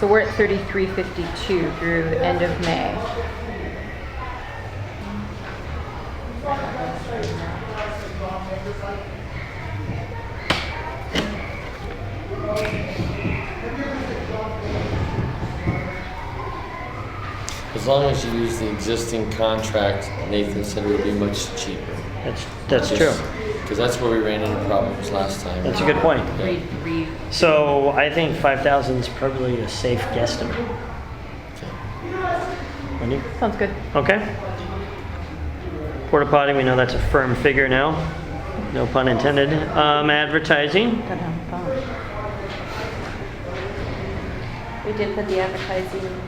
So we're at thirty-three fifty-two through the end of May. As long as you use the existing contract, Nathan said it would be much cheaper. That's, that's true. Because that's where we ran into problems last time. That's a good point. Read, read. So I think 5,000 is probably a safe guesstimate. Okay. Wendy? Sounds good. Okay. Porta potty, we know that's a firm figure now. No pun intended. Um, advertising. Got it on the phone. We did put the advertising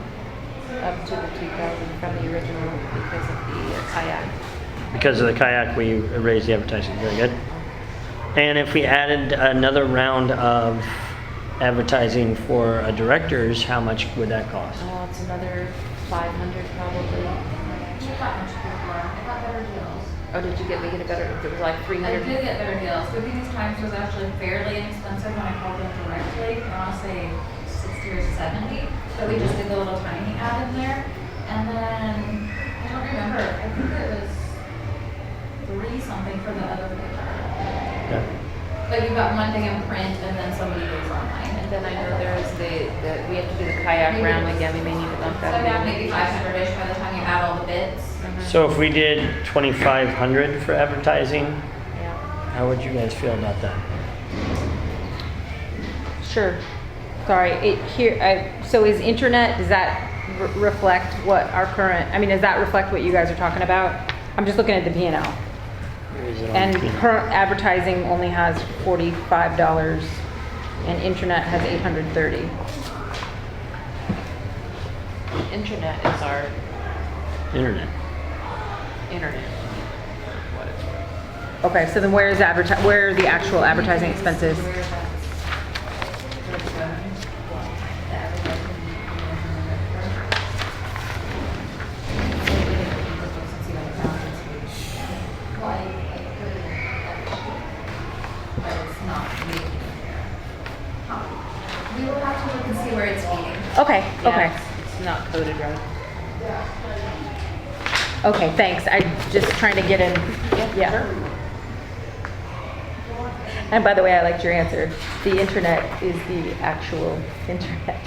up to the two thousand from the original because of the kayak. Because of the kayak, we raised the advertising. Very good. And if we added another round of advertising for uh, directors, how much would that cost? Oh, it's another five hundred probably. She got much good work. I got better deals. Oh, did you get, we get a better, it was like three I hundred? did get better deals. The biggest times was actually fairly inexpensive when I called them directly. I want to say sixty or seventy, but we just did the little tiny ad in there. And then I don't remember. I think it was three something for the other paper. Yeah. But you got one thing in print and then somebody goes online. And then I know there is the, the, we have to do the kayak Maybe round it's- again, we may need to bump So that. I got a little. maybe five hundred-ish by the time you add all the bits. So if we did 2,500 for advertising, Yeah. how would you guys feel about that? Sure. Sorry, it here, I, so is internet, does that re- reflect what our current, I mean, does that reflect what you guys are talking about? I'm just looking at the P and L. Or is it on And P&L? current advertising only has forty-five dollars and internet has eight hundred thirty. Internet is our internet. internet. What it's worth. Okay, so then where is adverti, where are the actual advertising expenses? We will have to look and see where it's meeting. Okay, okay, It's not coded right. okay, thanks, I just trying to get in, yeah. And by the way, I liked your answer, the internet is the actual internet.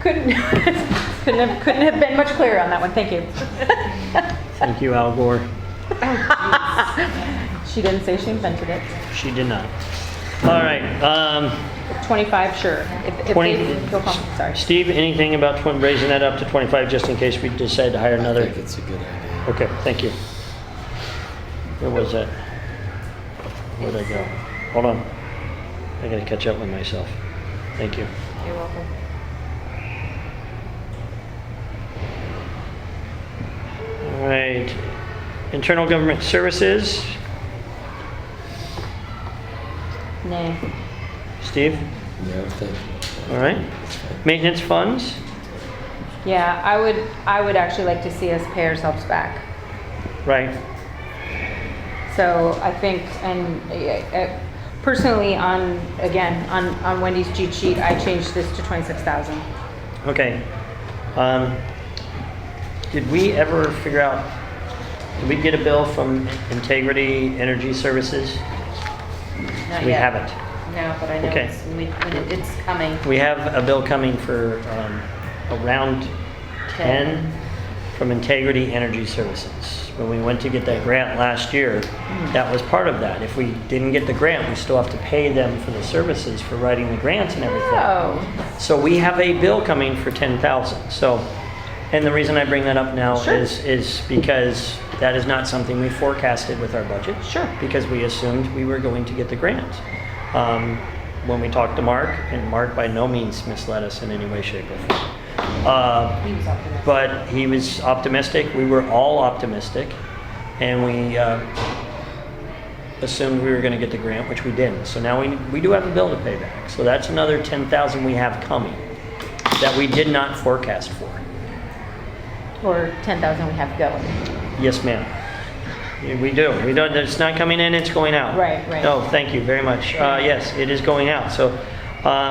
Couldn't, couldn't have, couldn't have been much clearer on that one, thank you. Thank you, Al Gore. She didn't say she invented it. She did not. All right. Um, 25, sure. If, if Twenty- they feel comfortable, sorry. Steve, anything about twen- raising that up to 25 just in case we decide to hire I another? think it's a good idea. Okay, thank you. Where was that? Where'd I go? Hold on. I gotta catch up with myself. Thank you. You're welcome. All right. Internal Government Services, Nay. Steve? No, thank you. All right. Maintenance funds? Yeah, I would, I would actually like to see us pay ourselves back. Right. So I think, and uh, uh, personally on, again, on, on Wendy's cheat sheet, I changed this to 26,000. Okay. Um, did we ever figure out, did we get a bill from Integrity Energy Services? Not We yet. haven't. No, but I know Okay. it's, we- when it- it's coming. We have a bill coming for um, around 10 from Integrity Energy Services. When we went to get that grant last year, that was part of that. If we didn't get the grant, we still have to pay them for the services for writing the grants and everything. Oh, So we have a bill coming for ten thousand, so, and the reason I bring that up now Sure. is, is because that is not something we forecasted with our budget. Sure. Because we assumed we were going to get the grant. Um, when we talked to Mark, and Mark by no means misled us in any way, shape, or form. Uh, He was up for that. but he was optimistic, we were all optimistic, and we, uh, assumed we were gonna get the grant, which we didn't. So now we, we do have a bill to pay back, so that's another ten thousand we have coming that we did not forecast for. or 10,000 we have going. Yes, ma'am. Yeah, We do. We don't, it's not coming in, it's going out. Oh, Right, right. No, thank you very much. Uh, yes, it is going out, so, um,